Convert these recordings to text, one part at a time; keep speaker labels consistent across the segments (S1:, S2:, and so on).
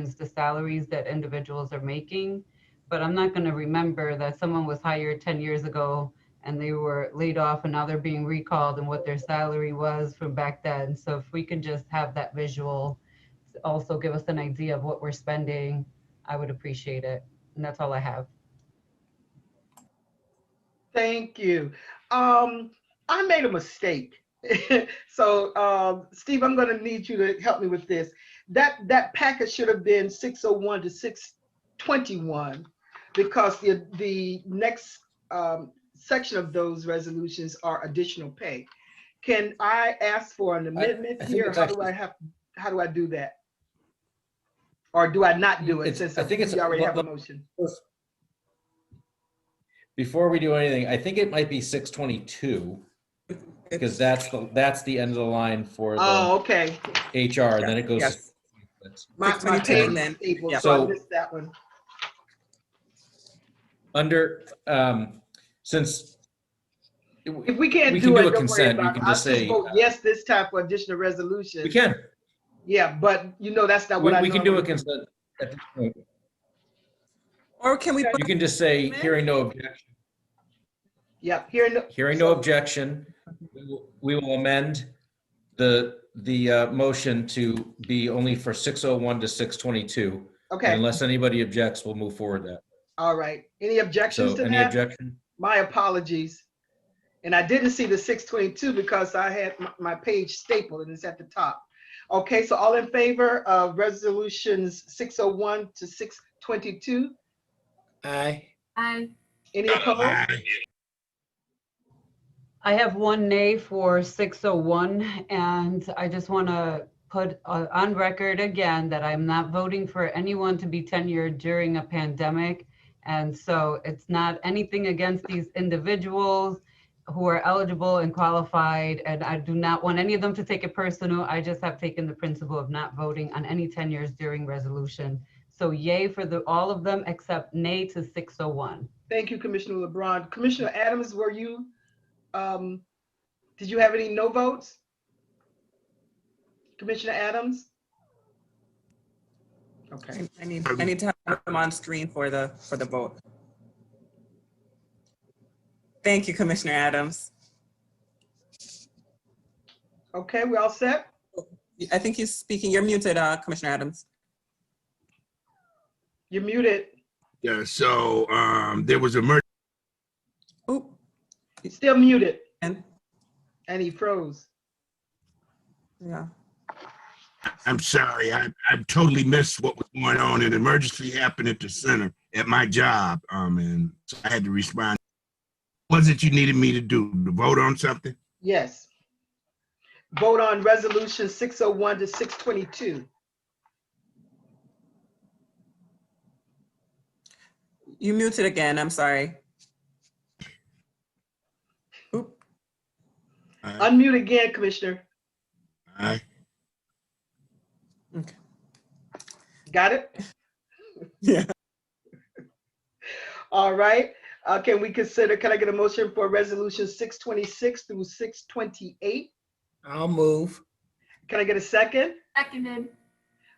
S1: is the salaries that individuals are making. But I'm not going to remember that someone was hired 10 years ago and they were laid off and now they're being recalled and what their salary was from back then. So if we can just have that visual, to also give us an idea of what we're spending, I would appreciate it. And that's all I have.
S2: Thank you. Um, I made a mistake. so, um, Steve, I'm going to need you to help me with this. That that packet should have been 601 to 621, because the the next um, section of those resolutions are additional pay. Can I ask for an
S3: I-
S2: amendment
S3: I think
S2: here?
S3: it's
S2: How do
S3: actually-
S2: I have? How do I do that? Or do I not do it
S3: It's-
S2: since
S3: I think it's-
S2: we already have a
S3: let-
S2: motion?
S3: Before we do anything, I think it might be six twenty-two, because that's the, that's the end of the line for the
S2: Oh, okay.
S3: HR, and then it goes.
S4: Yes.
S3: to-
S2: My, my
S4: 622
S2: page
S4: then.
S2: is stable,
S4: Yeah.
S2: so I
S3: So-
S2: missed that one.
S3: Under, um, since,
S2: If we can't do it,
S3: We can do a
S2: don't worry
S3: consent, we
S2: about it.
S3: can
S2: I'll
S3: just
S2: just
S3: say,
S2: vote
S3: uh,
S2: yes this time for additional resolution.
S3: we can,
S2: Yeah, but you know, that's not
S3: we
S2: what I
S3: we can do a
S2: normally.
S3: consent. at this point.
S4: Or can we,
S3: You
S4: put
S3: can just say, hearing no objection,
S2: Yep, here, no-
S3: hearing no objection, we will- we will amend the, the, uh, motion to be only for six oh one to six twenty-two.
S2: okay,
S3: Unless anybody objects, we'll move forward that.
S2: all right. Any objections
S3: So
S2: to
S3: any
S2: that?
S3: objection?
S2: My apologies. And I didn't see the six twenty-two because I had my, my page stapled and it's at the top. Okay, so all in favor of resolutions six oh one to six twenty-two?
S4: aye,
S5: Aye.
S2: Any opposed?
S1: I have one nay for 601, and I just want to put uh, on record again that I'm not voting for anyone to be tenured during a pandemic. And so it's not anything against these individuals who are eligible and qualified, and I do not want any of them to take it personal. I just have taken the principle of not voting on any tenures during resolution. So yay for the, all of them except nay to 601.
S2: Thank you, Commissioner LeBron. Commissioner Adams, were you, um, did you have any no votes? Commissioner Adams? Okay,
S4: I I need, I need to have them on screen for the, for the vote. Thank you, Commissioner Adams.
S2: okay, we all set?
S4: I think you're speaking, you're muted, uh, Commissioner Adams.
S2: You're muted.
S6: Yeah, so um, there was a merger.
S4: Oop,
S2: Still muted,
S4: and,
S2: and he froze.
S4: yeah.
S6: I'm sorry, I, I totally missed what was going on. An emergency happened at the center at my job, um, and so I had to respond. Was it you needed me to do to vote on something?
S2: Yes. Vote on resolution six oh one to six twenty-two.
S4: You muted again, I'm sorry. Oop,
S6: Aye.
S2: Unmute again, Commissioner.
S6: Aye.
S2: Got it?
S4: yeah.
S2: All right, uh, can we consider, can I get a motion for resolution six twenty-six through six twenty-eight?
S4: I'll move.
S2: Can I get a second?
S5: Seconded.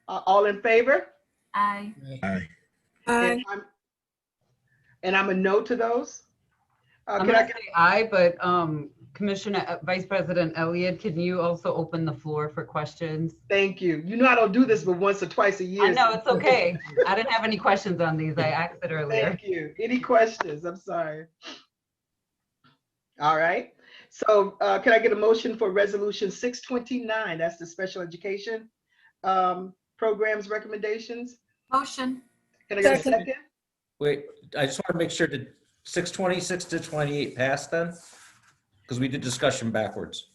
S2: Uh, all in favor?
S5: Aye.
S6: Aye.
S2: And I'm- and I'm a no to those. Uh,
S1: I'm
S2: can I
S1: gonna
S2: get,
S1: say aye, but um, Commissioner, uh, Vice President Elliott, can you also open the floor for questions?
S2: thank you. You know I don't do this but once or twice a year.
S1: I know, it's okay. I didn't have any questions on these. I asked it earlier.
S2: Thank you. Any questions? I'm sorry. All right. So uh, can I get a motion for resolution six twenty-nine? That's the special education um, programs recommendations.
S5: Motion.
S2: Can I get a
S3: Second.
S2: second?
S3: Wait, I just want to make sure to six twenty, six to twenty-eight pass then? Because we did discussion backwards.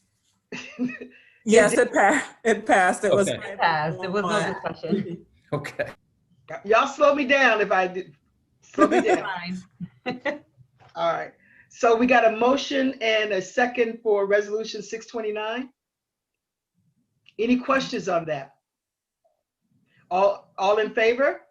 S4: Yes, it passed, it passed, it was.
S3: Okay.
S1: It Passed. It was no discussion.
S3: Okay.
S2: Y'all slow me down if I did. Slow me down.
S1: Fine.
S2: All right, so we got a motion and a second for resolution six twenty-nine. Any questions on that? All, all in favor?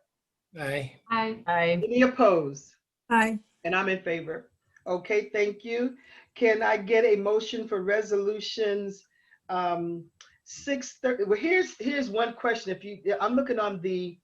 S4: Aye.
S5: Aye.
S1: Aye.
S2: Any opposed?
S5: Aye.
S2: And I'm in favor. Okay, thank you. Can I get a motion for resolutions? Um, six thirty, well, here's, here's one question. If you, I'm looking on the